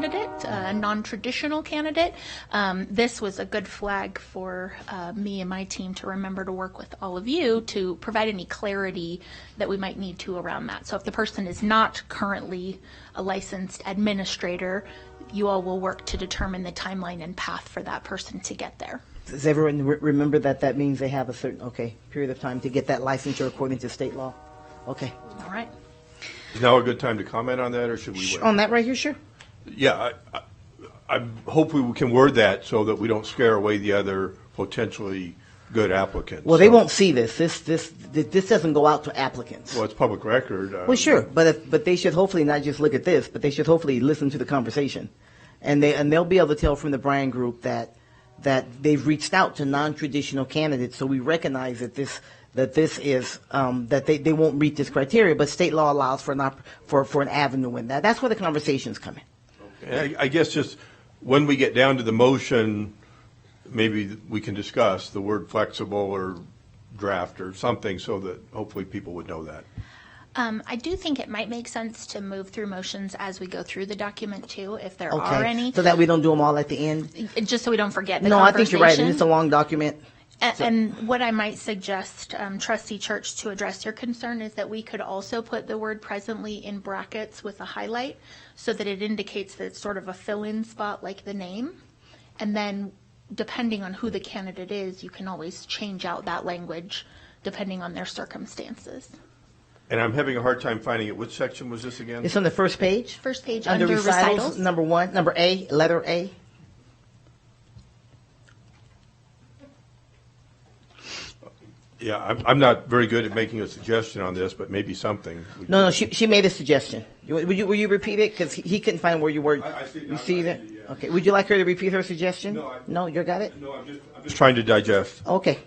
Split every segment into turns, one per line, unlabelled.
candidate, a non-traditional candidate. Um, This was a good flag for uh, me and my team to remember to work with all of you to provide any clarity that we might need to around that. So if the person is not currently a licensed administrator, you all will work to determine the timeline and path for that person to get there.
Does everyone re- remember that that means they have a certain, okay, period of time to get that licensure according to state law? Okay.
All right?
Is now a good time to comment on that, or should we
On
wait?
that right here, sure.
Yeah, I, I I hope we can word that so that we don't scare away the other potentially good applicants.
Well, they
So-
won't see this. This, this, th- this doesn't go out to applicants.
Well, it's public record. um,
Well, sure, but if, but they should hopefully not just look at this, but they should hopefully listen to the conversation, and they and they'll be able to tell from the Bryan Group that that they've reached out to non-traditional candidates, so we recognize that this that this is um, that they, they won't meet this criteria, but state law allows for an op- for for an avenue in that. That's where the conversations come in.
And I I guess just when we get down to the motion, maybe we can discuss the word flexible or draft or something so that hopefully people would know that.
Um, I do think it might make sense to move through motions as we go through the document too, if there
Okay,
are any,
so that we don't do them all at the end.
just so we don't forget the
No, I think you're right, and
conversation.
it's a long document.
A- And what I might suggest, um, trustee Church, to address your concern is that we could also put the word presently in brackets with a highlight so that it indicates that it's sort of a fill-in spot like the name. And then depending on who the candidate is, you can always change out that language depending on their circumstances.
And I'm having a hard time finding it. Which section was this again?
It's on the first page.
First page under recitals.
number one, number A, letter A.
Yeah, I'm, I'm not very good at making a suggestion on this, but maybe something. we
No, no, she, she made a suggestion. You- Would you, will you repeat it? Because he, he couldn't find where you were.
I- I see-
You
I-
see
I
that?
see, yeah.
Okay, would you like her to repeat her suggestion?
No, I-
No, you got it?
No, I'm just, I'm just trying to digest.
Okay.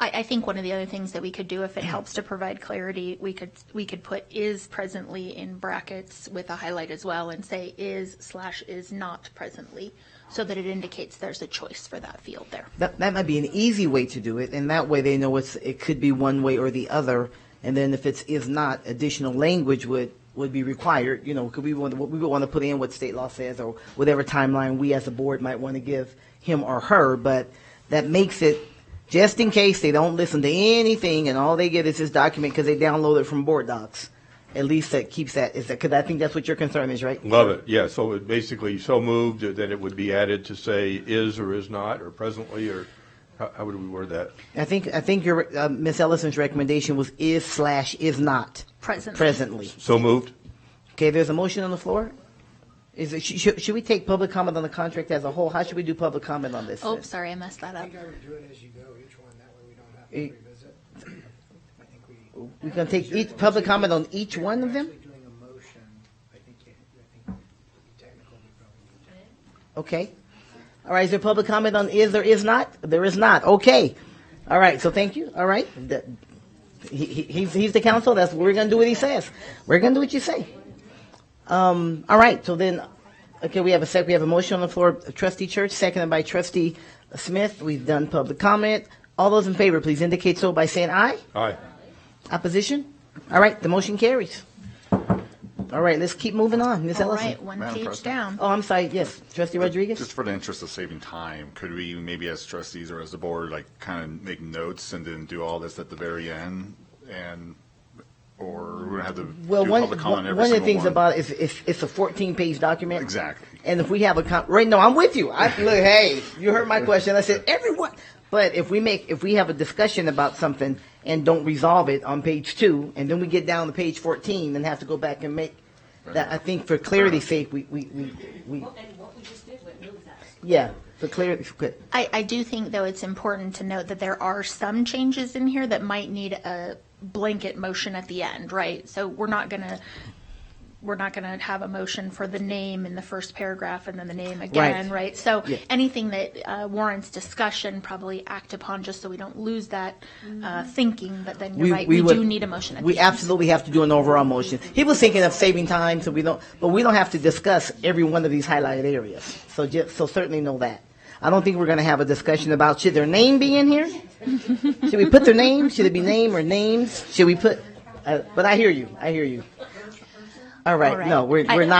I, I think one of the other things that we could do, if it helps to provide clarity, we could, we could put is presently in brackets with a highlight as well and say is slash is not presently, so that it indicates there's a choice for that field there.
That, that might be an easy way to do it, and that way they know it's, it could be one way or the other. And then if it's, is not, additional language would, would be required, you know, could we want, we would want to put in what state law says or whatever timeline we as a board might want to give him or her, but that makes it, just in case they don't listen to anything and all they get is this document because they download it from board docs. At least that keeps that, is that, because I think that's what your concern is, right?
Love it, yeah, so it basically, so moved that it would be added to say is or is not, or presently, or how, how would we word that?
I think, I think your, uh, Ms. Ellison's recommendation was is slash is not.
Presently.
Presently.
So moved?
Okay, there's a motion on the floor. Is it, sh- should, should we take public comment on the contract as a whole? How should we do public comment on this?
Oh,
then?
sorry, I messed that
Uh,
I
up.
think I would do it as you go, each one, that way we don't have
Eh.
to revisit. I think we.
We're gonna take each, public comment on each one of them?
Actually doing a motion, I think, you- I think to be technical, we probably need to.
Okay. All right, is there public comment on is or is not? There is not, okay. All right, so thank you, all right. The- He, he, he's, he's the council, that's, we're gonna do what he says. We're gonna do what you say. Um, all right, so then, okay, we have a sec, we have a motion on the floor, trustee Church, seconded by trustee Smith. We've done public comment. All those in favor, please indicate so by saying aye.
Aye.
Opposition? All right, the motion carries. All right, let's keep moving on. Ms.
All
Ellison?
right, one
Madam
page
President.
down.
Oh, I'm sorry, yes. Trustee
Just
Rodriguez?
for the interest of saving time, could we maybe as trustees or as the board, like kind of make notes and then do all this at the very end? And, or we're gonna have to
Well,
do
one,
public comment on
one
every
of the
single
things
one?
about it is, it's, it's a 14-page document.
Exactly.
And if we have a, con- right, no, I'm with you. I, look, hey, you heard my question. I said, everyone. But if we make, if we have a discussion about something and don't resolve it on page two, and then we get down to page 14 and have to go back and make, that, I think for clarity's sake, we, we, we, we
And what we just did, what moves us.
yeah, for clarity, good.
I, I do think, though, it's important to note that there are some changes in here that might need a blanket motion at the end, right? So we're not gonna, we're not gonna have a motion for the name in the first paragraph and then the name again, right? So
Yeah.
anything that uh, warrants discussion, probably act upon, just so we don't lose that uh, thinking, but then you're right, we
would-
do need a motion at the
We
end.
absolutely have to do an overall motion. He was thinking of saving time, so we don't, but we don't have to discuss every one of these highlighted areas. So just, so certainly know that. I don't think we're gonna have a discussion about should their name be in here? Should we put their name? Should it be name or names? Should we put, uh, but I hear you, I hear you. All
All
right,
right.
no, we're,
I-
we're not.